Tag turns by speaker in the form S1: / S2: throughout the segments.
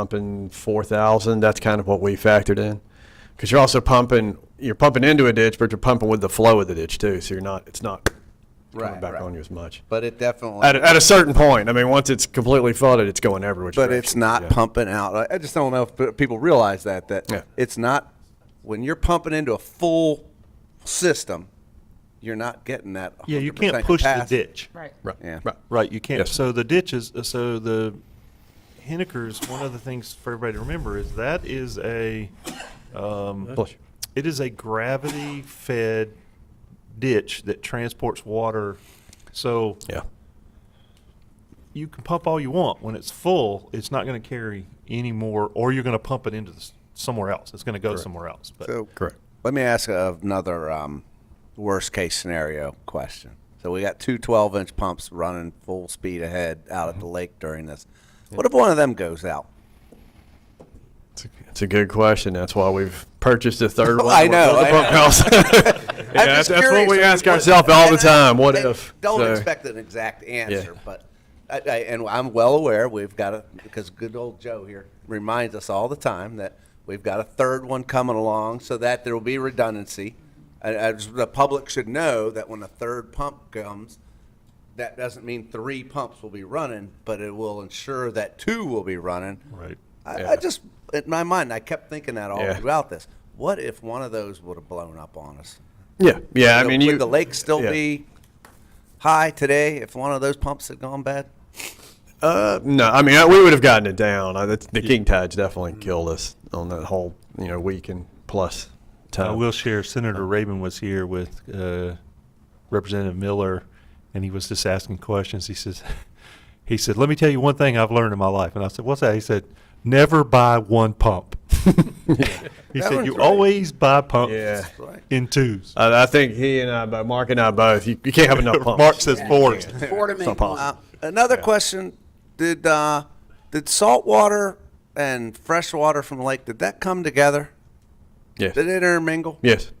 S1: pumping 4,000, that's kind of what we factored in. Because you're also pumping, you're pumping into a ditch, but you're pumping with the flow of the ditch too, so you're not, it's not coming
S2: Right,
S1: back
S2: right.
S1: on you as much.
S2: But it definitely.
S1: At, a- at a certain point, I mean, once it's completely flooded, it's going everywhere.
S2: but it's not pumping out. I- I just don't know if p- people realize that that
S1: Yeah.
S2: it's not when you're pumping into a full system, you're not getting that.
S3: Yeah, you
S2: 100%
S3: can't push the
S2: capacity.
S3: ditch.
S4: Right.
S1: Right,
S2: Yeah.
S1: right.
S3: Right, you can't.
S1: Yes.
S3: So the ditches, so the Hennikers, one of the things for everybody to remember is that is a,
S1: Bless you.
S3: it is a gravity-fed ditch that transports water. So
S1: Yeah,
S3: you can pump all you want. When it's full, it's not going to carry any more, or you're going to pump it into s- somewhere else. It's going to go somewhere else. But
S2: So
S1: correct.
S2: let me ask another um, worst case scenario question. So we got two 12 inch pumps running full speed ahead out
S3: Mm-hmm.
S2: at the lake during this. What if one of them goes out?
S1: It's a- It's a good question. That's why we've purchased a third one.
S2: I
S1: We're building
S2: know,
S1: a pump
S2: I know.
S1: house. Yeah,
S2: I'm
S1: that's-
S2: just
S1: That's what
S2: curious.
S1: we ask
S2: What-
S1: ourselves all the
S2: and I-
S1: time, what
S2: and
S1: if?
S2: Don't
S1: So-
S2: expect an exact answer, but I, I, and I'm well aware we've got a because good old Joe here reminds us all the time that we've got a third one coming along, so that there will be redundancy. I, I just- the public should know that when a third pump comes, that doesn't mean three pumps will be running, but it will ensure that two will be running.
S3: right,
S2: I,
S1: Yeah.
S2: I just in my mind, I kept thinking that all
S1: Yeah.
S2: throughout this. What if one of those would have blown up on us?
S1: Yeah, yeah, I
S2: Would-
S1: mean,
S2: would
S1: you.
S2: the lake still
S1: yeah.
S2: be high today if one of those pumps had gone bad?
S1: Uh, no, I mean, I- we would have gotten it down. I, that's- the king tides definitely killed us on that whole, you know, week and plus
S3: I
S1: time.
S3: will share. Senator
S1: uh,
S3: Rabin was here with uh, Representative Miller, and he was just asking questions. He says, he said, "Let me tell you one thing I've learned in my life." And I said, "What's that?" He said, "Never buy one pump." he
S2: That
S3: said,
S2: one's
S3: "You
S2: right.
S3: always buy pumps
S1: Yeah.
S2: Right.
S3: in twos.
S1: I, I think he and I, bo- Mark and I both, you, you can't have enough pumps.
S3: Mark says four.
S4: Four to me.
S2: Uh, another question: Did uh, did salt water and fresh water from the lake did that come together?
S1: Yes.
S2: Did it intermingle?
S1: Yes.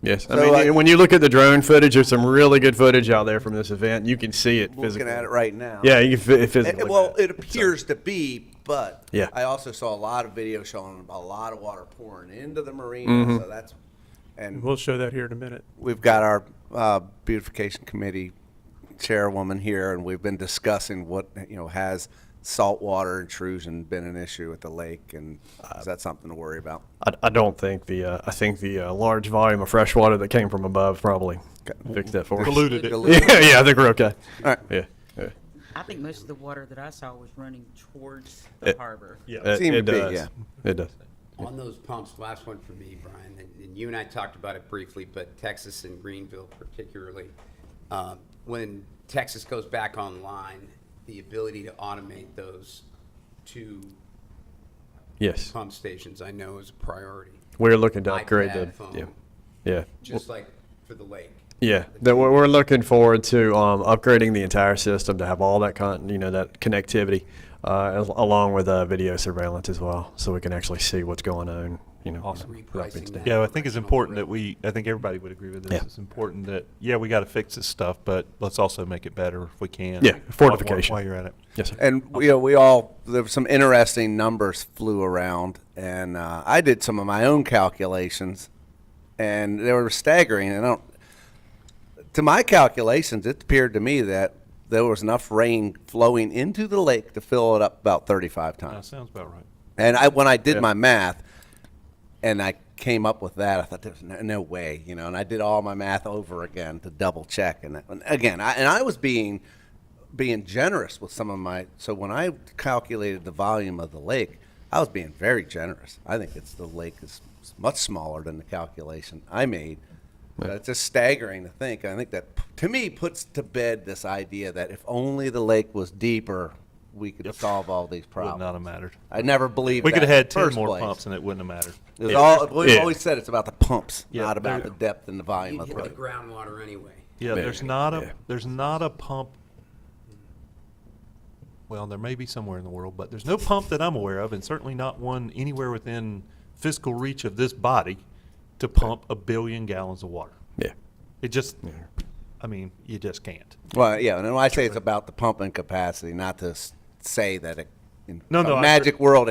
S1: Yes. I
S2: So, uh,
S1: mean,
S2: like-
S1: y- when you look at the drone footage, there's some really good footage out there from this event. You can see it physically.
S2: Looking at it right now.
S1: Yeah, you can phy- physically.
S2: Eh, well,
S1: look at
S2: it appears to be, but
S1: Yeah.
S2: I also saw a lot of video showing a lot of water pouring into the marina. So that's and
S5: We'll show that here in a minute.
S2: we've got our uh, beautification committee chairwoman here, and we've been discussing what, you know, has saltwater intrusion been an issue at the lake, and uh, is that something to worry about?
S1: I, I don't think the uh, I think the uh, large volume of fresh water that came from above probably fixed that for us.
S3: Polluted it.
S2: Dilute-
S1: Yeah, yeah, I think we're okay.
S2: All right.
S1: Yeah. yeah.
S4: I think most of the water that I saw was running towards the
S1: It-
S4: harbor.
S1: It,
S2: Seemed
S1: it
S2: to be,
S1: does.
S2: yeah.
S1: It does.
S6: On those pumps, last one for me, Brian, and and you and I talked about it briefly, but Texas and Greenville particularly. uh, When Texas goes back online, the ability to automate those two
S1: Yes.
S6: pump stations, I know is a priority,
S1: We're looking to upgrade
S6: iPad,
S1: the
S6: phone.
S1: yeah. Yeah.
S6: just like for the lake.
S1: Yeah, that we're, we're looking forward to um, upgrading the entire system to have all that con- you know that connectivity, uh, as- along with uh, video surveillance as well, so we can actually see what's going on. You know,
S6: Awesome. Repricing that.
S3: Yeah, I think it's important that we, I think everybody would agree with this.
S1: Yeah.
S3: It's important that, yeah, we got to fix this stuff, but let's also make it better if we can.
S1: Yeah,
S3: While- while-
S1: fortification.
S3: While you're at it.
S1: Yes, sir.
S2: And you know, we all there were some interesting numbers flew around, and uh, I did some of my own calculations, and they were staggering. And I don't, to my calculations, it appeared to me that there was enough rain flowing into the lake to fill it up about thirty-five
S3: That
S2: times.
S3: Uh, sounds about right.
S2: And I, when I did
S1: Yeah.
S2: my math, and I came up with that, I thought there's no, no way, you know. And I did all my math over again to double check. And, and again, I, and I was being being generous with some of my. So when I calculated the volume of the lake, I was being very generous. I think it's the lake is much smaller than the calculation I made. But it's just staggering to think. I think that to me puts to bed this idea that if only the lake was deeper, we could solve all these problems.
S3: Would not have mattered.
S2: I never believed
S3: We
S2: that
S3: could have had
S2: in the
S3: 10
S2: first
S3: more
S2: place.
S3: pumps and it wouldn't have mattered.
S2: It was all, we've
S1: Yeah.
S2: always said it's about the pumps,
S3: Yeah,
S2: not about
S3: there-
S2: the depth and the volume
S6: You'd
S2: of the
S6: hit the
S2: lake.
S6: groundwater anyway.
S3: Yeah, there's not a
S1: yeah.
S3: there's not a pump. Well, there may be somewhere in the world, but there's no pump that I'm aware of, and certainly not one anywhere within fiscal reach of this body to pump a billion gallons of water.
S1: yeah,
S3: It just, I mean, you just can't.
S2: Well, yeah, and when I say it's about the pumping capacity, not to s- say that it in
S3: No, no,
S2: a
S3: I-
S2: magic world,